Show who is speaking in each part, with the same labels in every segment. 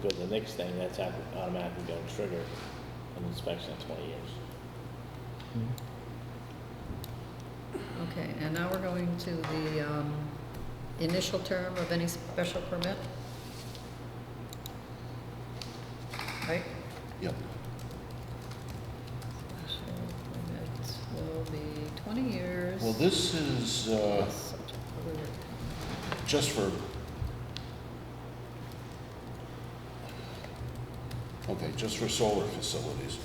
Speaker 1: Because the next thing, that's au- automatically going to trigger an inspection in 20 years.
Speaker 2: Okay, and now we're going to the um, initial term of any special permit? Right?
Speaker 3: Yep.
Speaker 2: Special permits will be 20 years.
Speaker 3: Well, this is uh,
Speaker 2: plus subject to the-
Speaker 3: just for, okay, just for solar facilities.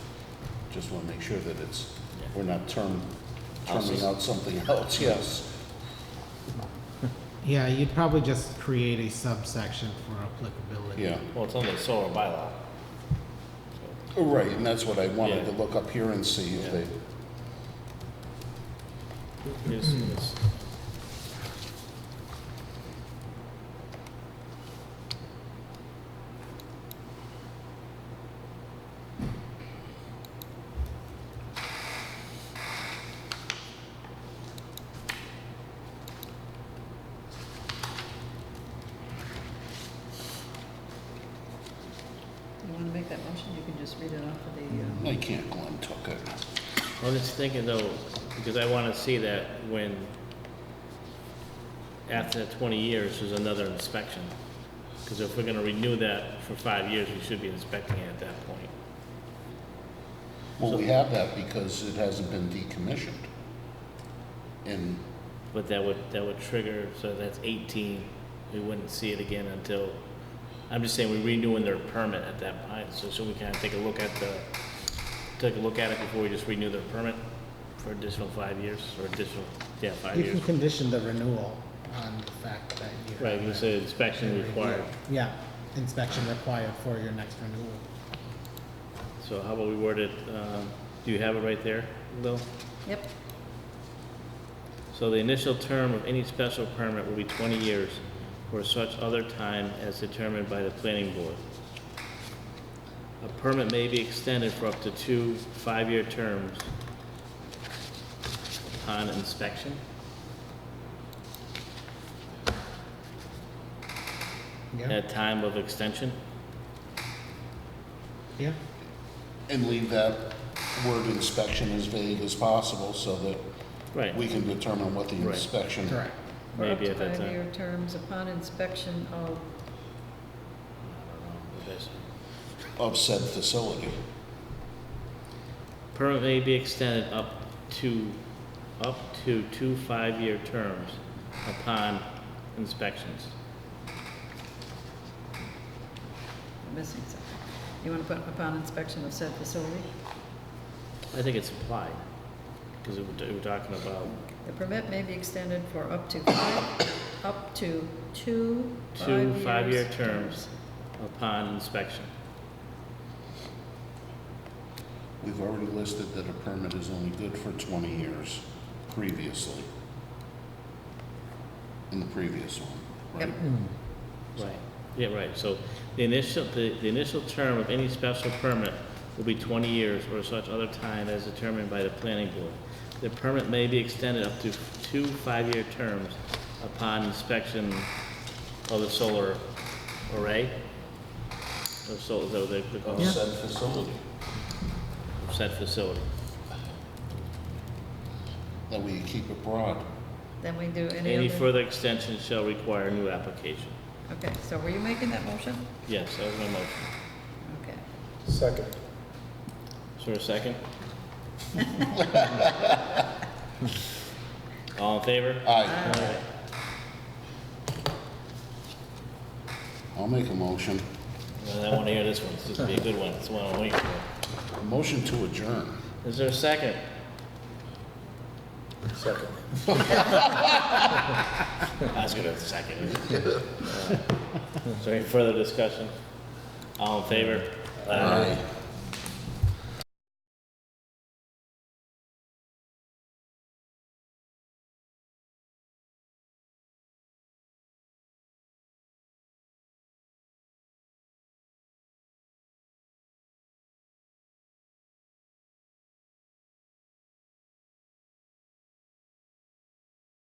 Speaker 3: Just want to make sure that it's, we're not term,
Speaker 1: Houses.
Speaker 3: terming out something else, yes.
Speaker 4: Yeah, you'd probably just create a subsection for applicability.
Speaker 3: Yeah,
Speaker 1: Well, it's under the solar bylaw. So,
Speaker 3: right, and that's what I wanted to
Speaker 1: Yeah.
Speaker 3: look up here and see if they,
Speaker 1: here's- here's-
Speaker 2: You want to make that motion? You can just read it off of the, uh,
Speaker 3: I can't Glenn Tuck it.
Speaker 1: I'm just thinking though, because I want to see that when, after that 20 years, there's another inspection. Because if we're going to renew that for five years, we should be inspecting it at that point.
Speaker 3: Well, we have that because it hasn't been decommissioned. And,
Speaker 1: But that would, that would trigger, so that's 18, we wouldn't see it again until, I'm just saying, we're renewing their permit at that point, so should we kind of take a look at the, take a look at it before we just renew their permit for additional five years, or additional, yeah, five
Speaker 4: You can
Speaker 1: years?
Speaker 4: condition the renewal on the fact that you.
Speaker 1: Right, you said inspection required,
Speaker 4: Yeah, inspection required for your next renewal.
Speaker 1: so how about we word it, um, do you have it right there, Lil?
Speaker 2: yep,
Speaker 1: So the initial term of any special permit will be 20 years or such other time as determined by the planning board. A permit may be extended for up to two five-year terms upon inspection.
Speaker 4: Yeah,
Speaker 1: At time of extension,
Speaker 4: yeah,
Speaker 3: and leave that word inspection as vague as possible so that
Speaker 1: right,
Speaker 3: we can determine what the
Speaker 1: Right.
Speaker 3: inspection
Speaker 4: correct.
Speaker 2: for up
Speaker 1: maybe
Speaker 2: to
Speaker 1: at that time.
Speaker 2: five-year terms upon inspection
Speaker 1: I
Speaker 2: of,
Speaker 1: don't know, that's-
Speaker 3: of said facility.
Speaker 1: Permit may be extended up to, up to two five-year terms upon inspections.
Speaker 2: I'm missing something. You want to put upon inspection of said facility?
Speaker 1: I think it's implied, because we're talking about
Speaker 2: The permit may be extended for up to five, up to two
Speaker 1: two
Speaker 2: five-year
Speaker 1: five-year terms upon inspection.
Speaker 3: We've already listed that a permit is only good for 20 years previously. In the previous one,
Speaker 2: Yep.
Speaker 3: right?
Speaker 1: Right. Yeah, right, so the initial, the, the initial term of any special permit will be twenty years or such other time as determined by the planning board. The permit may be extended up to two five-year terms upon inspection of the solar array. Of solar, though, the,
Speaker 3: Of
Speaker 1: the
Speaker 3: said facility.
Speaker 1: said facility.
Speaker 3: That way you keep it broad.
Speaker 2: Then we do any
Speaker 1: Any
Speaker 2: other-
Speaker 1: further extension shall require a new application.
Speaker 2: Okay, so were you making that motion?
Speaker 1: Yes, that was my motion.
Speaker 2: Okay.
Speaker 5: Second.
Speaker 1: Is there a second? All in favor?
Speaker 3: Aye.
Speaker 1: Aye.
Speaker 3: I'll make a motion.
Speaker 1: Well, I want to hear this one. This is gonna be a good one. It's the one I'm waiting for.
Speaker 3: A motion to adjourn.
Speaker 1: Is there a second?
Speaker 5: Second.
Speaker 1: I was gonna have a second. Is there any further discussion? All in favor?
Speaker 3: Aye.